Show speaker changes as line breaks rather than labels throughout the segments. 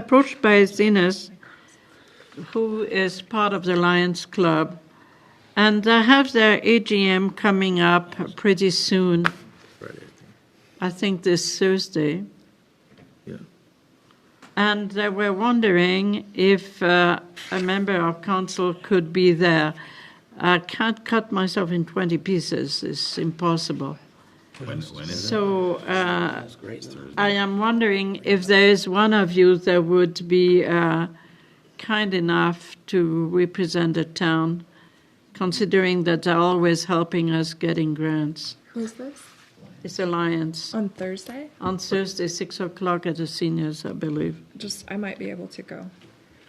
approached by Zenas, who is part of the Lions Club, and they have their AGM coming up pretty soon. I think this Thursday.
Yeah.
And they were wondering if uh, a member of council could be there. I can't cut myself in 20 pieces, it's impossible. So uh, I am wondering if there is one of you that would be uh, kind enough to represent the town, considering that they're always helping us getting grants.
Who's this?
It's Alliance
On Thursday?
on Thursday, 6 o'clock at the seniors, I believe.
Just, I might be able to go.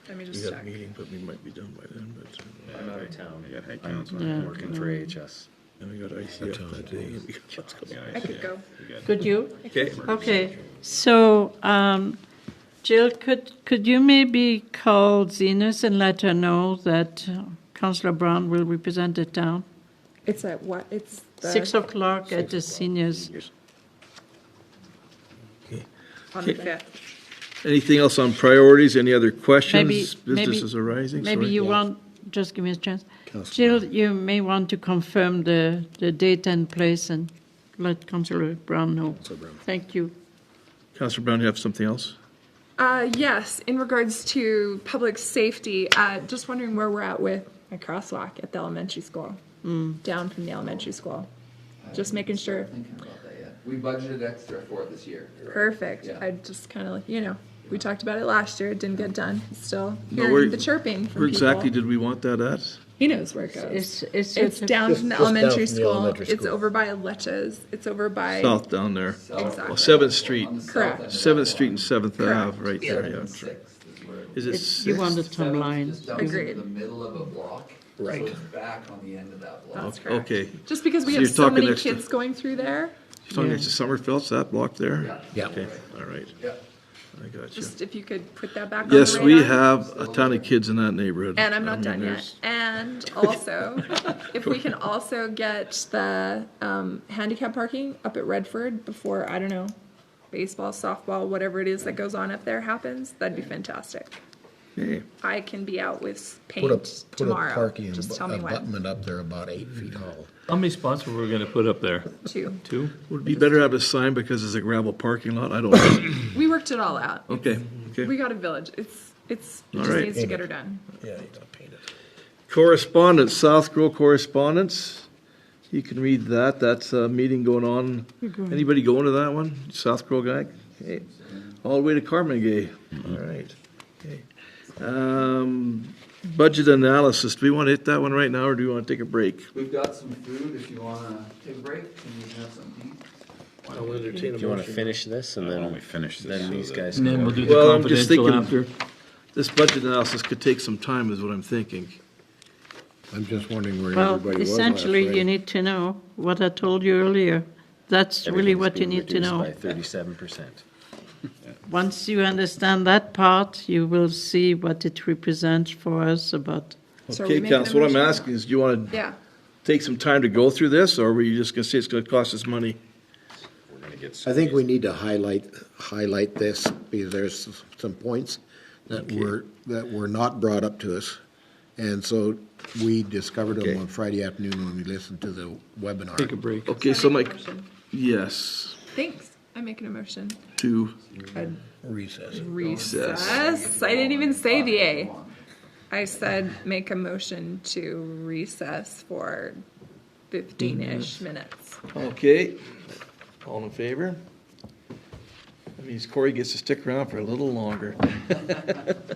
Let me
We
just
got a
check.
meeting, but we might be done by then, but, uh,
I'm out of town.
Yeah, hey,
I'm
council.
Yeah.
working for AHS.
and we got ICF that day. and we got lots coming.
I could go.
Could you?
Okay.
Okay, so um, Jill, could, could you maybe call Zenas and let her know that uh, Councillor Brown will represent the town?
It's at what? It's the.
Six o'clock at the seniors.
On the fifth.
Anything else on priorities? Any other questions?
maybe-
Businesses arising?
Maybe
Sorry.
you want, just give me a chance. Jill, you may want to confirm the, the date and place and let Councillor Brown know. Thank you.
Counselor Brown, you have something else?
Uh, yes, in regards to public safety, uh, just wondering where we're at with a crosswalk at the elementary school. Down from the elementary school. Just making sure.
Thinking about that yet. We budgeted extra for it this year.
Perfect.
Yeah.
I just kind of, you know, we talked about it last year. It didn't get done. Still
No,
hearing
we're-
the chirping from
Where exactly
people.
did we want that at?
He knows where it goes.
It's, it's.
It's down from the
just down
elementary
from the
school.
elementary
It's
school.
over by Leches. It's over by.
South down there.
Exactly.
Seventh Street,
On the south
Correct.
end of
Seventh
that
Street and Seventh Ave,
Correct.
right there, yeah.
block. Sixth is where it-
Is it
It's, you want the
sixth?
timeline.
Seventh just dumps into
Agreed.
The middle of a block.
Right.
So it's back on the end of that block.
That's correct.
Okay.
Just because we
So
have
you're
so
talking
many
extra-
kids going through there,
You're talking next to Summerfield's, that block there?
Yeah.
Okay, all right,
Yeah.
I got you.
just if you could put that back.
Yes,
on the
we
radar.
have Oh, a ton of kids in that neighborhood.
And I'm
I
not
mean,
done yet.
there's-
And also, if we can also get the um, handicap parking up at Redford before I don't know, baseball, softball, whatever it is that goes on up there happens, that'd be fantastic.
Okay.
I can be out with paint
Put a, put a
tomorrow.
parking
just tell me when.
abutment up there about eight feet tall.
How many spots were we gonna put up there?
Two.
Two?
Would be better to have a sign because it's a gravel parking lot. I don't know.
We worked it all out.
Okay, okay.
We got a village. It's it's it
All
just
right.
needs to get her done.
Yeah, you gotta paint it.
Correspondence, South Grow correspondence. You can read that. That's a meeting going on. Anybody going to that one? South Grow guy? Okay. All the way to Carmigay. All right. Okay. Um, budget analysis. Do we want to hit that one right now or do we want to take a break?
We've got some food if you wanna take a break and we can have some tea.
I'll entertain a
Do you want to
motion.
finish this and
Why don't
then,
we finish this?
then
so
these
that-
guys?
And then
can go
we'll
over
do
it?
the
Well, I'm just
confidential after.
thinking- This budget analysis could take some time is what I'm thinking.
I'm just wondering where
Well,
everybody was last
essentially, you
night.
need to know what I told you earlier. That's really
Everything's
what you
being
need to
reduced
know.
By thirty-seven percent.
Once you understand that part, you will see what it represents for us about,
So are we
Okay,
making a
council, what I'm
motion?
asking is, do you want to
Yeah.
take some time to go through this or were you just going to say it's going to cost us money?
We're gonna get
I think we need to highlight, highlight this, because there's some points that were, that were not brought up to us. And so we discovered
Okay.
them on Friday afternoon when we listened to the webinar.
Take a break.
Okay, so my,
Motion.
yes,
Thanks. I'm making a motion.
two,
Recess.
Recess. I didn't even say the A. I said make a motion to recess for fifteen-ish minutes.
okay. All in favor? That means Corey gets to stick around for a little longer.